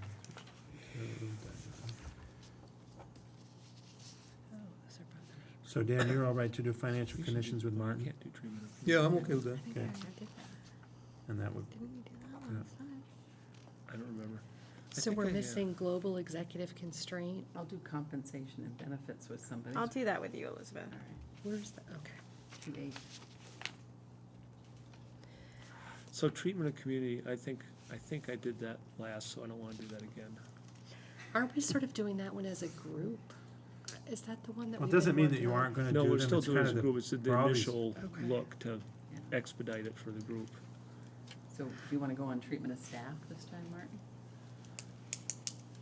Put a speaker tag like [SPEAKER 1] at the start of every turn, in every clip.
[SPEAKER 1] Oh, So Dan, you're all right to do financial conditions with Martin?
[SPEAKER 2] Can't do treatment of.
[SPEAKER 3] Yeah, I'm okay with that.
[SPEAKER 4] I think
[SPEAKER 1] Okay.
[SPEAKER 4] I already did that.
[SPEAKER 1] And that would,
[SPEAKER 4] Didn't we do that
[SPEAKER 1] Yeah.
[SPEAKER 4] last time?
[SPEAKER 2] I don't remember. I
[SPEAKER 5] So
[SPEAKER 2] think I
[SPEAKER 5] we're
[SPEAKER 2] have.
[SPEAKER 5] missing global executive constraint.
[SPEAKER 6] I'll do compensation and benefits with somebody.
[SPEAKER 4] I'll do that with you, Elizabeth.
[SPEAKER 6] All right,
[SPEAKER 5] Where's the, okay.
[SPEAKER 6] two days.
[SPEAKER 2] So treatment of community, I think, I think I did that last, so I don't wanna do that again.
[SPEAKER 5] Aren't we sort of doing that one as a group? Is that the one that
[SPEAKER 1] well,
[SPEAKER 5] we've
[SPEAKER 1] it
[SPEAKER 5] been
[SPEAKER 1] doesn't mean that you
[SPEAKER 5] working on?
[SPEAKER 1] aren't gonna Uh, do
[SPEAKER 2] No,
[SPEAKER 1] them.
[SPEAKER 2] we're still
[SPEAKER 1] It's
[SPEAKER 2] doing it as
[SPEAKER 1] kinda
[SPEAKER 2] a group, it's
[SPEAKER 1] we're
[SPEAKER 2] the
[SPEAKER 1] always-
[SPEAKER 2] initial
[SPEAKER 5] Okay.
[SPEAKER 2] look to expedite it for the group.
[SPEAKER 6] So do you want to go on treatment of staff this time, Martin?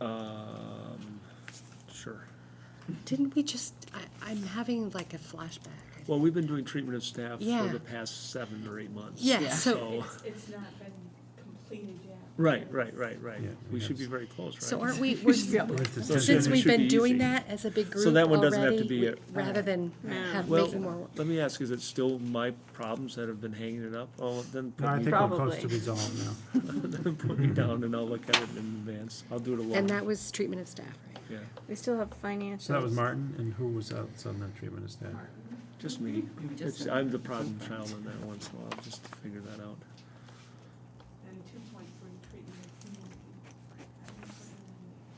[SPEAKER 2] Um, sure.
[SPEAKER 5] Didn't we just, I, I'm having like a flashback. I think.
[SPEAKER 2] Well, we've been doing treatment of staff for
[SPEAKER 5] Yeah.
[SPEAKER 2] the past seven or eight months.
[SPEAKER 5] Yeah,
[SPEAKER 6] yeah,
[SPEAKER 5] so,
[SPEAKER 2] So-
[SPEAKER 7] It's, it's not been completed yet.
[SPEAKER 2] Right, right, right, right.
[SPEAKER 1] Yeah,
[SPEAKER 2] We
[SPEAKER 1] yeah.
[SPEAKER 2] should be very close, right?
[SPEAKER 5] so aren't we,
[SPEAKER 6] We
[SPEAKER 5] we're,
[SPEAKER 6] should be able
[SPEAKER 1] But
[SPEAKER 6] to-
[SPEAKER 1] it's a
[SPEAKER 2] So
[SPEAKER 5] since
[SPEAKER 2] it
[SPEAKER 1] decision-
[SPEAKER 5] we've
[SPEAKER 2] should
[SPEAKER 5] been
[SPEAKER 2] be
[SPEAKER 5] doing
[SPEAKER 2] easy.
[SPEAKER 5] that as a big group
[SPEAKER 2] that one doesn't have to
[SPEAKER 5] already,
[SPEAKER 2] be
[SPEAKER 5] we-
[SPEAKER 2] a-
[SPEAKER 5] Rather than have
[SPEAKER 2] Well-
[SPEAKER 5] maybe more,
[SPEAKER 2] Let me ask, is it still my problems that have been hanging it up? Oh, then
[SPEAKER 1] No, I
[SPEAKER 2] put
[SPEAKER 1] think
[SPEAKER 2] me,
[SPEAKER 1] we're close to
[SPEAKER 4] Probably.
[SPEAKER 1] resolve now.
[SPEAKER 2] then put me down and I'll look at it in advance. I'll do it alone.
[SPEAKER 5] and that was treatment of staff, right?
[SPEAKER 2] Yeah,
[SPEAKER 4] We still have financials.
[SPEAKER 1] So that was Martin, and who was else on that treatment of staff?
[SPEAKER 2] just me.
[SPEAKER 6] Maybe just
[SPEAKER 2] It's-
[SPEAKER 6] a-
[SPEAKER 2] I'm the problem child on that one, so I'll just figure that out.
[SPEAKER 7] And two point three treatment of community. I didn't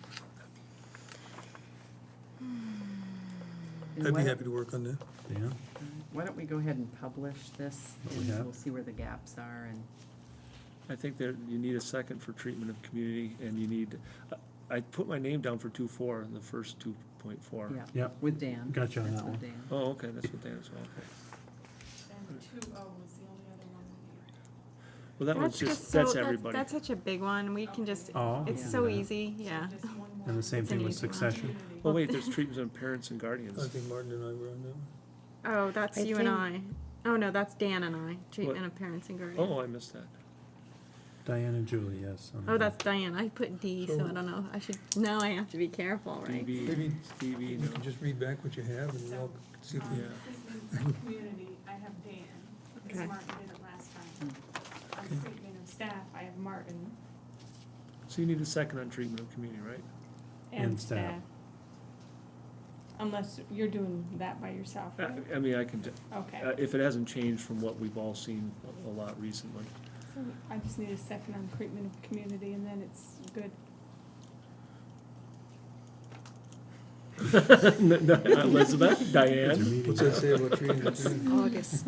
[SPEAKER 7] put it in there.
[SPEAKER 6] And
[SPEAKER 3] I'd
[SPEAKER 6] why
[SPEAKER 3] be
[SPEAKER 6] don't-
[SPEAKER 3] happy to work on that.
[SPEAKER 1] Dan?
[SPEAKER 6] Why don't we go ahead and publish this,
[SPEAKER 1] What Oh, we
[SPEAKER 6] and
[SPEAKER 1] have?
[SPEAKER 6] we'll see where the gaps are, and
[SPEAKER 2] I think there, you need a second for treatment of community and you need, uh, I put my name down for two four in the first two point four.
[SPEAKER 6] yeah.
[SPEAKER 1] Yep.
[SPEAKER 6] With Dan.
[SPEAKER 1] Gotcha on
[SPEAKER 6] That's
[SPEAKER 1] that
[SPEAKER 6] with
[SPEAKER 1] one.
[SPEAKER 6] Dan.
[SPEAKER 2] Oh, okay, that's what that is, well, okay.
[SPEAKER 7] And two O was the only other one we needed.
[SPEAKER 2] Well, that one's just, that's everybody.
[SPEAKER 4] That's such a big one. We can just,
[SPEAKER 1] Oh.
[SPEAKER 4] it's
[SPEAKER 6] Yeah.
[SPEAKER 4] so
[SPEAKER 1] Yeah.
[SPEAKER 4] easy, yeah.
[SPEAKER 7] So just one more.
[SPEAKER 1] And the same
[SPEAKER 4] It's
[SPEAKER 1] thing
[SPEAKER 4] an
[SPEAKER 1] with
[SPEAKER 4] easy one.
[SPEAKER 1] succession?
[SPEAKER 7] Community.
[SPEAKER 2] Oh, wait, there's treatments on parents and
[SPEAKER 3] I
[SPEAKER 2] guardians.
[SPEAKER 3] think Martin and I were on that one.
[SPEAKER 4] Oh, that's
[SPEAKER 5] I
[SPEAKER 4] you and I.
[SPEAKER 5] think-
[SPEAKER 4] Oh, no, that's Dan and I, treatment of parents and guardians.
[SPEAKER 2] Oh, I missed that.
[SPEAKER 1] Diane and Julie, yes. on
[SPEAKER 4] Oh,
[SPEAKER 1] that.
[SPEAKER 4] that's Diane. I put D, so I don't know. I should, now I have to be careful, right?
[SPEAKER 2] DB,
[SPEAKER 3] Maybe
[SPEAKER 2] DB,
[SPEAKER 3] You can
[SPEAKER 2] no.
[SPEAKER 3] just read back what you have and
[SPEAKER 7] So,
[SPEAKER 3] we'll see if
[SPEAKER 7] um,
[SPEAKER 3] we.
[SPEAKER 7] treatment of community, I have Dan,
[SPEAKER 4] Okay.
[SPEAKER 7] because Martin did it last time.
[SPEAKER 2] Hmm.
[SPEAKER 7] On treatment of staff, I have Martin
[SPEAKER 2] So you need a second on treatment of community, right?
[SPEAKER 1] And
[SPEAKER 7] and
[SPEAKER 1] staff.
[SPEAKER 7] staff. Unless you're doing that by yourself, right?
[SPEAKER 2] I, I mean, I can, t- uh,
[SPEAKER 7] Okay,
[SPEAKER 2] if it hasn't changed from what we've all seen a- a lot recently.
[SPEAKER 7] so I just need a second on treatment of community and then it's good.
[SPEAKER 2] Elizabeth,
[SPEAKER 1] It's a
[SPEAKER 2] Diane?
[SPEAKER 1] meeting.
[SPEAKER 3] What's that say about treating the community?
[SPEAKER 5] August.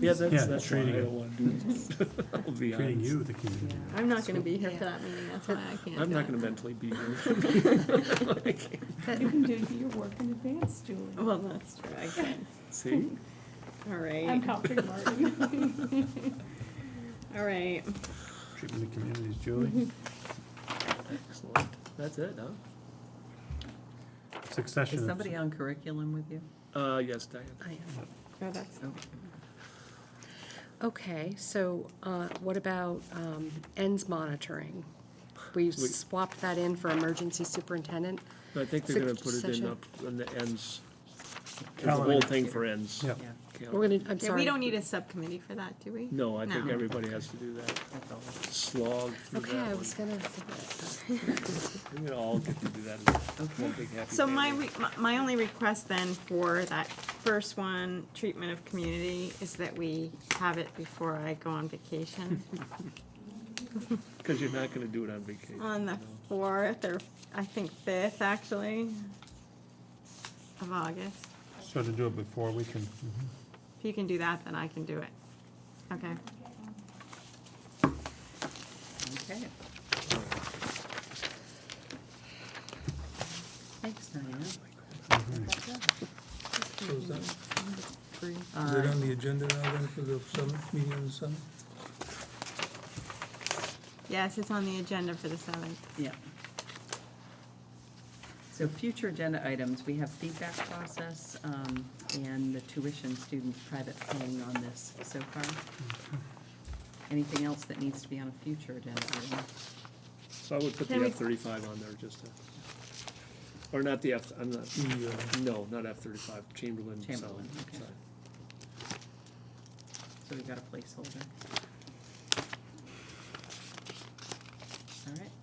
[SPEAKER 2] Yeah, that's,
[SPEAKER 1] Yeah,
[SPEAKER 2] that's why I
[SPEAKER 1] treating it.
[SPEAKER 2] don't want to do it. I'll be
[SPEAKER 1] Treating
[SPEAKER 2] honest.
[SPEAKER 1] you, the community.
[SPEAKER 6] Yeah.
[SPEAKER 4] I'm not gonna be here
[SPEAKER 5] Yeah.
[SPEAKER 4] for that meeting. That's why I can't.
[SPEAKER 2] I'm
[SPEAKER 4] do
[SPEAKER 2] not
[SPEAKER 4] it.
[SPEAKER 2] gonna mentally be here.
[SPEAKER 7] You can do your work in advance, Julie.
[SPEAKER 4] Well, that's true. I can't.
[SPEAKER 2] See?
[SPEAKER 4] All
[SPEAKER 7] I'm
[SPEAKER 4] right,
[SPEAKER 7] helping Martin.
[SPEAKER 4] all right.
[SPEAKER 1] Treatment of communities, Julie.
[SPEAKER 2] Excellent. That's it, huh?
[SPEAKER 1] Succession.
[SPEAKER 6] Is
[SPEAKER 1] of-
[SPEAKER 6] somebody on curriculum with you?
[SPEAKER 2] Uh, yes, Diane.
[SPEAKER 5] I am.
[SPEAKER 4] Oh, that's,
[SPEAKER 6] Oh,
[SPEAKER 5] Okay, so uh, what about um, ends monitoring? We swapped that in for emergency superintendent.
[SPEAKER 2] I think they're gonna put it in
[SPEAKER 5] Succession.
[SPEAKER 2] up on the ends. It's the
[SPEAKER 1] Calendar.
[SPEAKER 2] whole thing for ends.
[SPEAKER 1] Yeah.
[SPEAKER 6] yeah,
[SPEAKER 2] Cal-
[SPEAKER 5] We're gonna, I'm
[SPEAKER 4] yeah, we
[SPEAKER 5] sorry.
[SPEAKER 4] don't need a subcommittee for that, do we?
[SPEAKER 2] No, I think
[SPEAKER 4] No.
[SPEAKER 2] everybody has to do that.
[SPEAKER 6] that's all.
[SPEAKER 2] Slog through that
[SPEAKER 5] Okay, I
[SPEAKER 2] one.
[SPEAKER 5] was gonna.
[SPEAKER 2] We're gonna all get to do that as one big happy
[SPEAKER 4] So my,
[SPEAKER 2] family.
[SPEAKER 4] re- my- my only request then for that first one, treatment of community, is that we have it before I go on vacation.
[SPEAKER 2] Cause you're not gonna do it on vacation.
[SPEAKER 5] Uh,
[SPEAKER 4] On the
[SPEAKER 2] you know.
[SPEAKER 4] fourth, or I think fifth, actually, of August.
[SPEAKER 1] So to do it before, we can,
[SPEAKER 2] Mm-hmm.
[SPEAKER 4] If you can do that, then I can do it. Okay.
[SPEAKER 6] Okay, thanks, Diane.
[SPEAKER 1] Mm-hmm.
[SPEAKER 3] So is that, is that
[SPEAKER 6] Uh,
[SPEAKER 3] on the agenda now then for the summit, meeting on the summit?
[SPEAKER 4] Yes, it's on the agenda for the seventh.
[SPEAKER 6] Yeah. So future agenda items, we have feedback process um, and the tuition student private paying on this so far. Anything else that needs to be on a future agenda item?
[SPEAKER 2] So I would put
[SPEAKER 4] Can
[SPEAKER 2] the
[SPEAKER 4] we-
[SPEAKER 2] F thirty-five on there just to, or not the F, I'm not,
[SPEAKER 3] The, uh,
[SPEAKER 2] no, not F thirty-five, Chamberlain. so-
[SPEAKER 6] Mm-hmm. Chamberlain, okay.
[SPEAKER 2] sorry.
[SPEAKER 6] So we got a placeholder. All right.